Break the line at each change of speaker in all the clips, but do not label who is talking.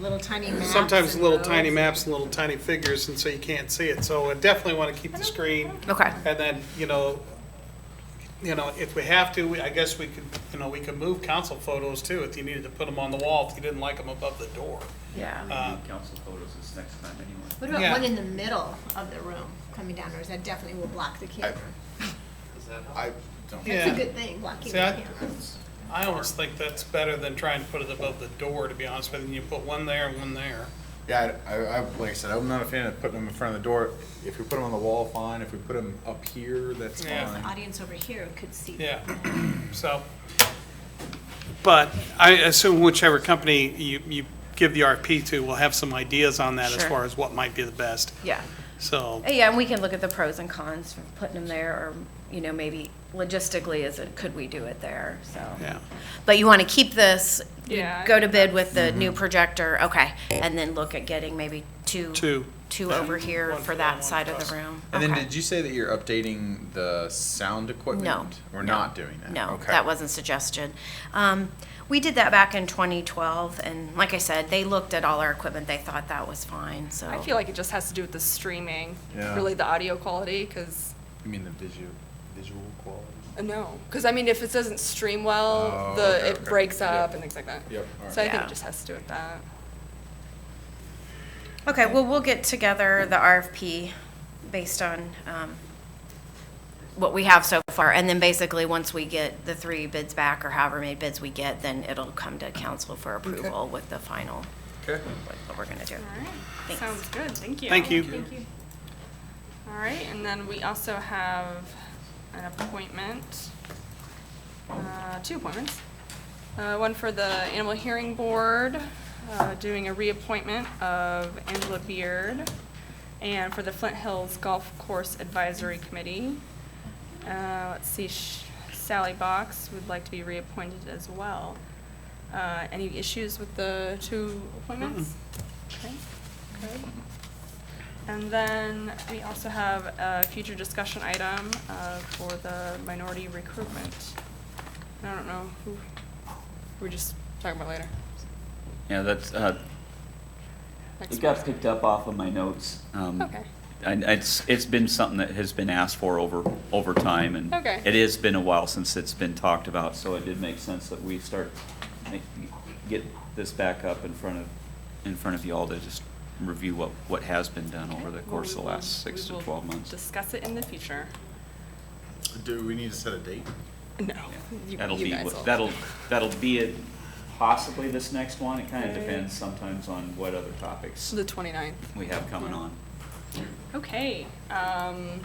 little tiny maps.
Sometimes
and
little
roads.
tiny maps, little tiny figures, and so you can't see it. So I definitely want to keep the screen.
Okay.
And then, you know, you know, if we have to, we- I guess we could, you know, we could move council photos too, if you needed to put them on the wall, if you didn't like them above the door.
Yeah.
Uh,
Council photos this next time anyway.
What about
Yeah.
one in the middle of the room coming down, or is that definitely will block the camera?
I don't.
That's a
Yeah,
good thing, blocking the
See, I-
camera.
I almost think that's better than trying to put it above the door, to be honest with you. You put one there and one there.
Yeah, I, I, I- like I said, I'm not a fan of putting them in front of the door. If we put them on the wall, fine. If we put them up here, that's
Yeah.
The
fine.
audience over here could see.
Yeah, so, but I assume whichever company you, you give the RFP to will have some ideas on that as
Sure.
far as what might be the best,
Yeah.
so.
Uh, Yeah, and we can look at the pros and cons from putting them there, or, you know, maybe logistically, is it, could we do it there, so.
Yeah.
But you want to keep this, you
Yeah, I
go to bid with the
Mm-hmm.
new projector, okay, and then look at getting maybe two.
Two.
Two
Yeah.
over here
One
for
for them, one
that side
for
of
us.
the room.
And then
Okay.
did you say that you're updating the sound equipment?
No.
We're
no,
not doing that.
No,
Okay.
that wasn't suggested. Um, We did that back in 2012, and like I said, they looked at all our equipment, they thought that was fine, so.
I feel like it just has to do with the streaming,
Yeah.
really the audio quality, because
You mean the visual, visual quality?
no, because I mean, if it doesn't stream well,
Oh,
the
okay,
it
okay.
breaks
Yeah.
up and things like that.
Yep, all right.
So I think
Yeah.
it just has to do with that.
Okay, well, we'll get together the RFP based on um, what we have so far, and then basically, once we get the three bids back, or however many bids we get, then it'll come to council for approval with the final,
Okay.
what what we're gonna do.
right,
Thanks.
sounds good, thank you.
Thank you. Thank
Thank you. All right, and then we also have an appointment, uh, two appointments. Uh, One for the Animal Hearing Board, uh, doing a reappointment of Angela Beard, and for the Flint Hills Golf Course Advisory Committee. Uh, Let's see, Sh- Sally Box would like to be reappointed as well. Uh, Any issues with the two appointments? Okay, great. And then we also have a future discussion item uh, for the minority recruitment. I don't know who, we're just talking about later.
Yeah, that's, uh,
Next
It got
one.
picked up off of my notes. um,
Okay.
And it's, it's been something that has been asked for over, over time, and
Okay.
it has been a while since it's been talked about, so it did make sense that we start, ma- get this back up in front of, in front of you all to just review what, what has been done over the
Well,
course of
we
the
will-
last six
we
to
will
twelve months.
Discuss it in the future.
Do we need to set a date?
No. you-
That'll
you
be,
guys
what-
will.
that'll, that'll be it, possibly this next one, it kind of
Okay.
depends sometimes on what other topics
The 29th.
we have coming
Yeah.
on.
Okay. um,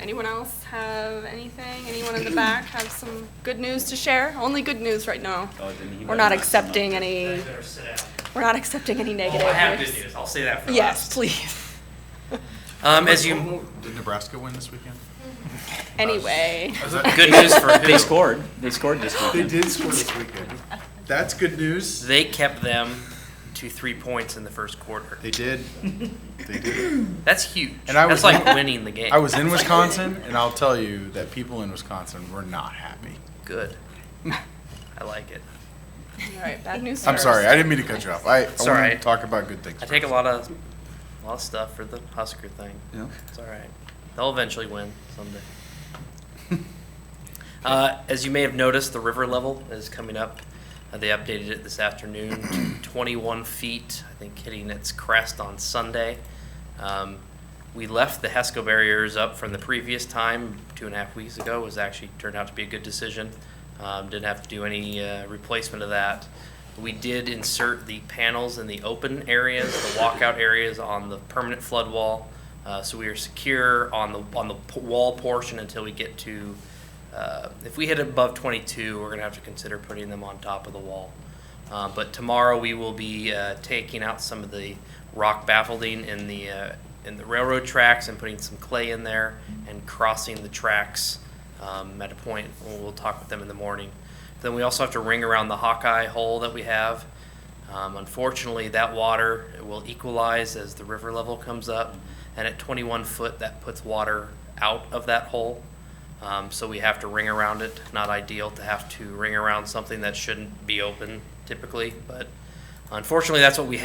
Anyone else have anything? Anyone in the back have some good news to share? Only good news right now.
Oh, then you
We're
better
not
mess them up.
accepting any,
better sit down.
we're not accepting any negative
Oh, I have
news.
good news. I'll say that for
Yes,
last.
please.
Um, as you,
Did Nebraska win this weekend?
Anyway,
Is that-
good news for
They
who?
scored, they scored this weekend.
They did score this weekend. That's good news.
They kept them to three points in the first quarter.
They did. They did.
That's huge.
And I
That's
was-
like winning the game.
I was in Wisconsin, and I'll tell you that people in Wisconsin were not happy.
Good. I like it.
all right, bad news
I'm
first.
sorry, I didn't mean to cut you off. I, I
It's all
want to
right.
talk about good things.
I take a lot of, a lot of stuff for the Husker thing.
Yeah.
It's all right. They'll eventually win someday. uh, as you may have noticed, the river level is coming up. Uh, they updated it this afternoon to 21 feet, I think hitting its crest on Sunday. Um, we left the HESCO barriers up from the previous time, two and a half weeks ago. It was actually turned out to be a good decision. Um, didn't have to do any uh, replacement of that. We did insert the panels in the open areas, the walkout areas on the permanent flood wall. Uh, so we are secure on the on the p- wall portion until we get to. Uh, if we hit above 22, we're gonna have to consider putting them on top of the wall. Uh, but tomorrow we will be uh, taking out some of the rock baffling in the uh, in the railroad tracks and putting some clay in there and crossing the tracks um, at a point. We'll, we'll talk with them in the morning. Then we also have to ring around the Hawkeye hole that we have. Um, unfortunately, that water will equalize as the river level comes up, and at 21 foot, that puts water out of that hole. Um, so we have to ring around it. Not ideal to have to ring around something that shouldn't be open typically, but unfortunately, that's what we have.